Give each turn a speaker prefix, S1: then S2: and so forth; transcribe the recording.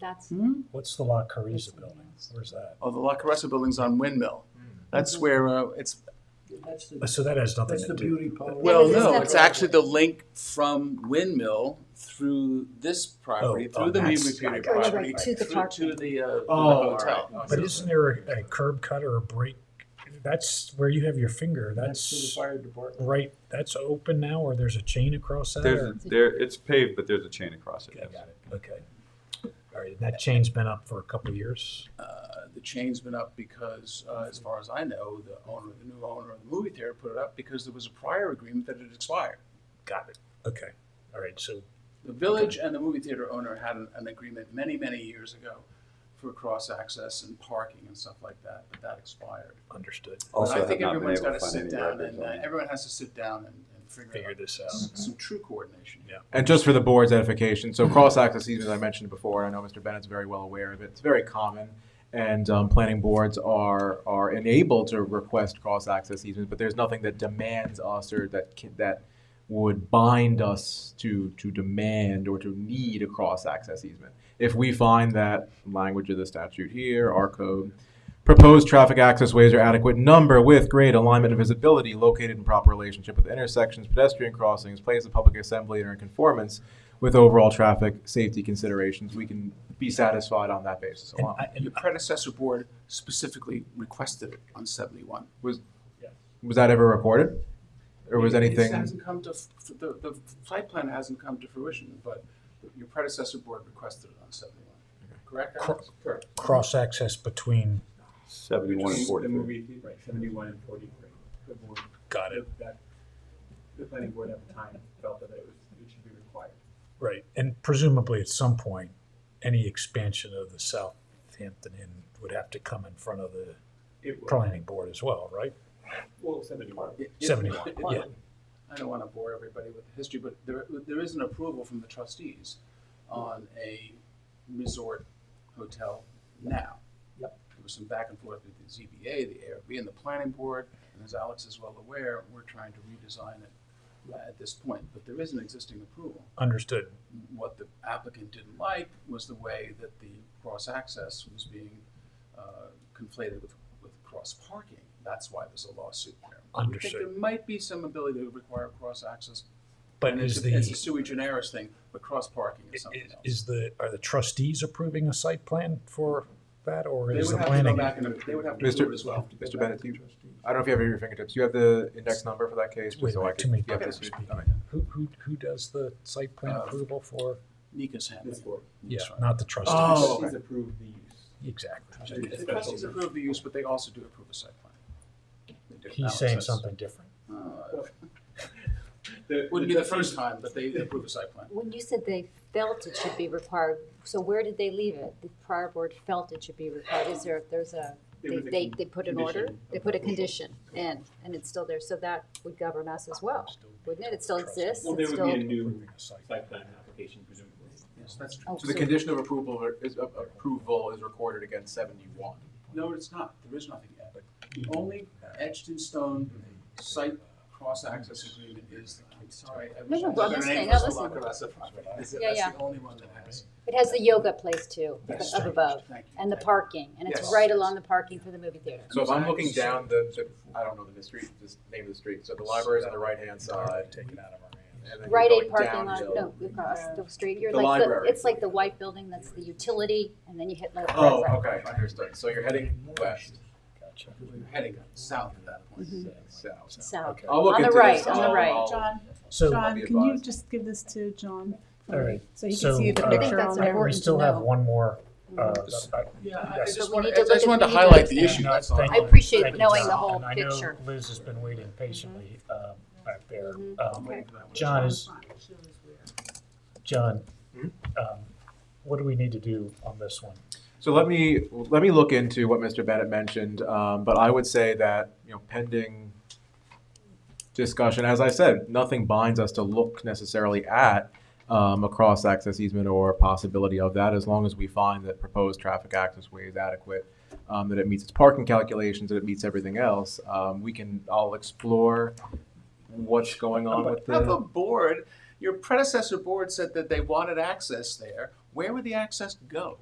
S1: that's,
S2: What's the La Cariza building? Where's that?
S3: Oh, the La Caressa building's on Windmill.
S2: Hmm.
S3: That's
S1: Mm-hmm.
S3: where, uh, it's,
S4: That's
S2: Uh,
S4: the,
S2: So that has nothing
S4: that's the
S2: to do.
S4: beauty part.
S3: well,
S1: it's
S3: no,
S1: not-
S3: it's actually the link from Windmill through this property,
S2: Oh,
S3: through
S2: oh,
S3: the
S2: that's-
S3: Mead Repeater
S2: I got you.
S3: property,
S1: Right, to
S3: through
S1: the
S3: to
S1: parking.
S3: the, uh, to the
S2: Oh,
S3: hotel.
S2: But isn't there a a curb cut or a break? That's where you have your finger.
S4: That's to the
S2: That's
S4: fire department.
S2: right, that's open now or there's a chain across that?
S5: There's,
S2: or-
S5: a- there, it's paved, but there's a chain across it,
S2: Okay,
S5: yes.
S2: got it. Okay. All right, and that chain's been up for a couple of years.
S3: Uh, The chain's been up because, uh, as far as I know, the owner, the new owner of the movie theater put it up because there was a prior agreement that had expired.
S2: Got it. Okay. All right, so
S3: The village and the movie theater owner had an, an agreement many, many years ago for cross-access and parking and stuff like that, but that expired.
S2: understood.
S5: Also
S3: I
S5: have
S3: think
S5: not been
S3: everyone's
S5: able
S3: got
S5: to
S3: to
S5: find
S3: sit
S5: any
S3: down
S5: records
S3: and, uh,
S5: on it.
S3: everyone has to sit down and, and figure
S2: Figure
S3: out
S2: this
S3: s-
S2: out.
S3: some true coordination.
S2: Yeah.
S6: And just for the board's edification, so cross-access easements, I mentioned before, and I know Mr. Bennett's very well aware of it, it's very common. And um, planning boards are, are enabled to request cross-access easements, but there's nothing that demands us or that, ca- that would bind us to, to demand or to need a cross-access easement. If we find that language of the statute here, our code, proposed traffic access ways are adequate in number with grade alignment and visibility located in proper relationship with intersections, pedestrian crossings, places of public assembly, and are in conformance with overall traffic safety considerations. We can be satisfied on that basis
S2: And
S6: alone.
S2: I- and
S3: Your predecessor board specifically requested it on seventy-one.
S6: Was that ever recorded? Or was
S3: It- it
S6: anything,
S3: hasn't come to, f- f- the, the site plan hasn't come to fruition, but your predecessor board requested it on seventy-one, correct?
S2: Cor-
S3: Alex? Correct.
S2: cross access between,
S5: Seventy-one and forty-three.
S7: Right, seventy-one and forty-three. The board, uh,
S2: got it,
S7: that, the planning board at the time felt that it was, it should be required.
S2: right. And presumably at some point, any expansion of the Southampton Inn would have to come in front of the
S7: It was,
S2: planning board as well, right?
S7: well, seventy-one.
S3: It- it-
S2: 71, yeah.
S3: I don't want to bore everybody with the history, but there, there is an approval from the trustees on a resort hotel now. Yep. There was some back and forth with the ZBA, the ARB, and the planning board, and as Alex is well aware, we're trying to redesign it at this point, but there is an existing approval.
S2: Understood.
S3: What the applicant didn't like was the way that the cross-access was being uh, conflated with, with cross-parking. That's why there's a lawsuit there. I think there
S2: Understood.
S3: might be some ability to require cross-access.
S2: But
S3: and
S2: is
S3: it's a- It's a
S2: the,
S3: sui generis thing, but cross-parking is
S2: is,
S3: something else.
S2: is the, are the trustees approving a site plan for that or
S3: They
S2: is
S3: would
S2: the
S3: have to go
S2: planning?
S3: back and, they would have to
S6: Mr.
S3: approve it as well.
S6: Mr. Bennett, do you- I don't know if you have it at your fingertips, you have the index number for that case? just
S2: Wait,
S6: so I
S2: too
S6: can-
S2: many
S6: you have
S2: people
S6: this-
S2: speaking.
S6: all right.
S2: Who, who, who does the site plan
S3: Uh,
S2: approval for?
S3: Nika's
S7: This
S3: handling.
S7: board.
S2: Yeah,
S3: sorry.
S2: not the trustees.
S6: Oh,
S7: Trustees approved the use.
S2: Exactly.
S3: The trustees approve the use, but they also do approve a site plan. They do.
S2: He's
S3: Alex
S2: saying
S3: has-
S2: something different.
S3: uh,
S7: The-
S3: Wouldn't be the first time, but they approve a site plan.
S1: when you said they felt it should be required, so where did they leave it? The prior board felt it should be required, is there, there's a,
S7: There
S1: they,
S7: was a
S1: they, they put an order?
S7: condition
S1: They
S7: of
S1: put a
S7: approval.
S1: condition in, and it's still there, so that would govern us as well,
S2: Still be
S1: wouldn't it? It still
S2: trustee.
S1: exists,
S7: Well,
S1: it's
S7: there would be a
S1: still,
S7: new
S2: approving a site plan.
S7: site plan application presumably.
S3: Yes, that's true.
S1: oh,
S6: So the
S1: so-
S6: condition of approval is, of approval is recorded against seventy-one.
S3: No, it's not. There is nothing yet. The only etched in stone site cross-access agreement is, I'm sorry. I wish
S1: no,
S3: I
S1: well,
S3: knew their
S1: listen,
S3: name
S1: no,
S3: was the
S1: listen.
S3: La Caressa property. That's it.
S1: Yeah,
S3: That's
S1: yeah.
S3: the only one that has.
S1: It has the yoga place too,
S3: That's
S1: up
S3: strange.
S1: above,
S3: Thank you.
S1: and the parking, and it's
S3: Yes.
S1: right along the parking for the movie theater.
S6: So if I'm looking down the, the- I don't know the street, the name of the street, so the library's on the right-hand side.
S2: Take it out of our hands.
S6: and then you're
S1: Right Aid
S6: going
S1: parking lot,
S6: downhill.
S1: no, across the street, you're
S6: The
S1: like, the-
S6: library.
S1: it's like the white building, that's the utility, and then you hit like.
S6: Oh, okay, understood. So you're heading west,
S2: Gotcha.
S3: We're heading south at that point.
S1: Mm-hmm.
S6: south.
S8: Oh.
S1: South,
S6: I'll look
S1: On the
S6: into this.
S1: right, on the
S6: I'll-
S1: right.
S6: I'll-
S8: John,
S2: So,
S6: I'll
S8: John,
S6: be
S8: can you
S6: advised.
S8: just give this to John? for
S2: All
S8: me,
S2: right.
S8: So he can
S2: So,
S8: see the
S2: uh,
S1: I think
S8: picture
S1: that's important.
S8: on there. Mm-hmm.
S2: we still have one more, uh,
S3: Yeah, I I
S2: Yes.
S3: just
S1: But we
S3: wanted,
S1: need
S3: I
S1: to look
S3: just
S1: at-
S3: wanted to
S1: we need to
S3: highlight
S1: look
S3: the
S1: at
S3: issue,
S2: No,
S3: that's all.
S2: thank
S1: I
S2: you.
S1: appreciate
S2: Thank you,
S1: knowing
S2: John.
S1: the whole
S2: And I
S1: picture.
S2: know Liz has been waiting patiently uh, back there.
S3: I'm
S2: Um,
S3: waiting for that one.
S2: John is, John, um, what do we need to do on this one?
S6: So let me, let me look into what Mr. Bennett mentioned, um, but I would say that, you know, pending discussion, as I said, nothing binds us to look necessarily at um, a cross-access easement or possibility of that, as long as we find that proposed traffic access way is adequate, um, that it meets its parking calculations, that it meets everything else, um, we can, I'll explore what's going on with
S3: How the
S6: the.
S3: board, your predecessor board said that they wanted access there. Where would the access go?